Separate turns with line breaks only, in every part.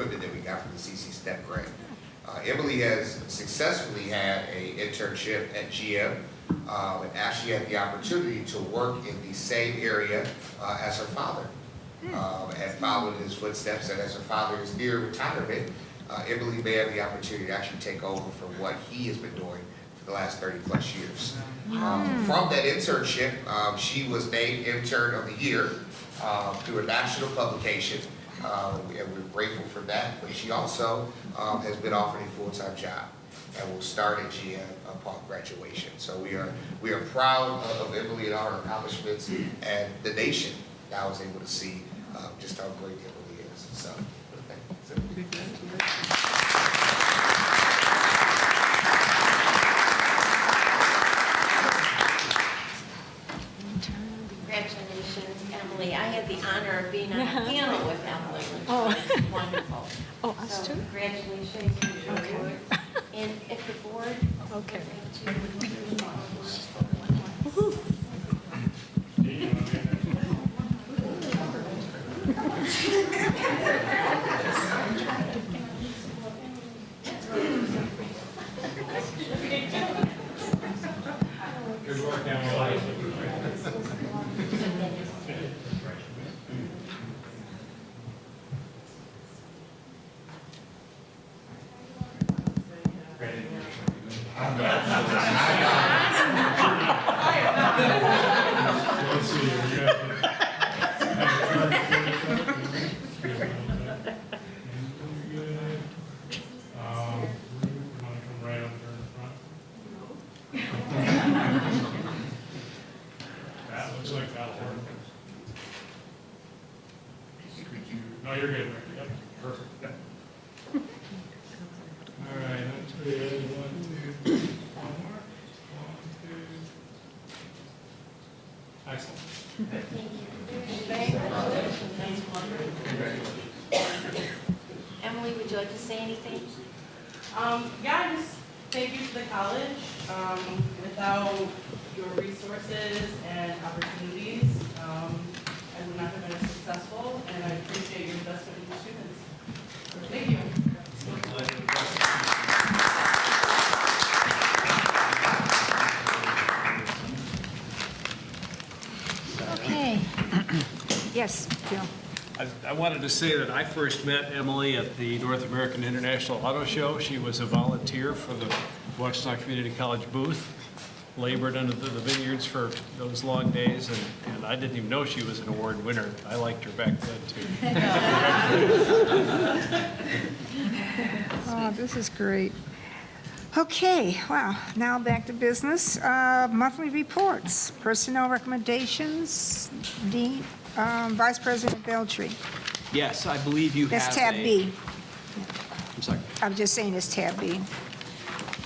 after the CC STEP grant. Uh, Emily has successfully had a internship at GM, uh, and actually had the opportunity to work in the same area, uh, as her father. Um, and followed in his footsteps, and as her father is near retirement, uh, Emily may have the opportunity to actually take over from what he has been doing for the last thirty-plus years. Um, From that internship, um, she was named Intern of the Year uh, through a national publication, uh, and we're grateful for that. But she also um, has been offered a full-time job and will start at GM upon graduation. So we are, we are proud of of Emily and our accomplishments, and the nation now is able to see uh, just how great Emily is, so. thank you.
Congratulations, Emily. I had the honor of being on a panel with Emily, which was wonderful.
Oh, us
So
too?
congratulations on your work. And if the board would
Okay.
like to.
Good work, Emily. Let's see, you got- Um, you wanna come right up there in front? That looks like that'll work. Could you, no, you're good, Mary. Yep, perfect. All right, that's good, one, two, one more, one, two. Excellent.
Emily, would you like to say anything?
Um, yeah, just thank you to the college. Um, without your resources and opportunities, um, I would not have been as successful, and I appreciate your investment in the students. Thank you.
Okay. Yes, Jill.
I- I wanted to say that I first met Emily at the North American International Auto Show. She was a volunteer for the Washington Community College booth, labored under the the vineyards for those long days, and and I didn't even know she was an award winner. I liked her back then, too.
Oh, this is great. Okay, wow, now back to business. Uh, Monthly reports, personnel recommendations, Dean, um, Vice President Beltry.
Yes, I believe you have
That's tab
a-
B.
I'm sorry.
I'm just saying it's tab B.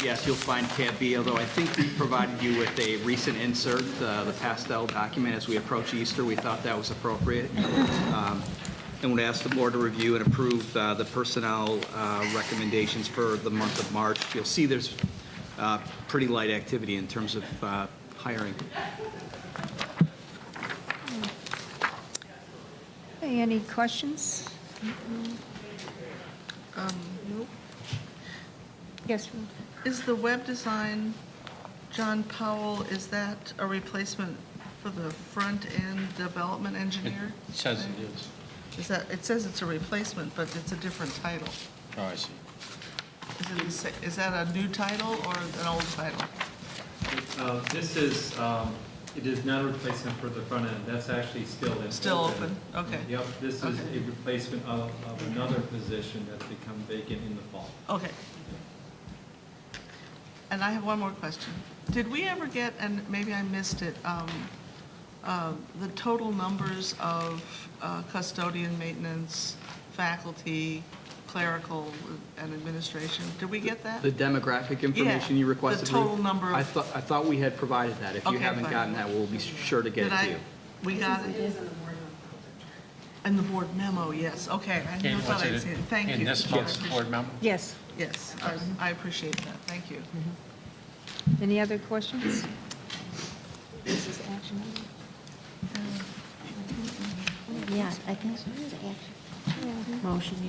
Yes, you'll find tab B, although I think we provided you with a recent insert, uh, the pastel document as we approach Easter. We thought that was appropriate. Um, And would ask the board to review and approve uh, the personnel uh, recommendations for the month of March. You'll see there's uh, pretty light activity in terms of uh, hiring.
Hey, Any questions? Yes, Ruth?
Is the web design, John Powell, is that a replacement for the front-end development engineer?
Says it is.
Is that, it says it's a replacement, but it's a different title.
Oh, I see.
Is it the sa- is that a new title or an old title?
Uh, This is, um, it is not a replacement for the front end, that's actually still. in
Still open, okay.
Yep, this is
Okay.
a replacement of, of another position that's become vacant in the fall.
Okay. And I have one more question. Did we ever get, and maybe I missed it, um, uh, the total numbers of uh, custodian, maintenance, faculty, clerical, and administration? Did we get that?
The demographic information
Yeah,
you
the
requested. Ruth?
total number of-
I thought, I thought we had provided that. If you
Okay,
haven't
fine.
gotten that, we'll be sure to
Did
get it to
I?
you.
We got it? In the board memo, yes, okay. I
And
never thought
was
I'd
it
seen it. Thank you.
In this
I
month's
appreciate-
board member?
Yes.
Yes, I- I appreciate that, thank you.
Any other questions? This is action.
Yeah, I think so. Motion,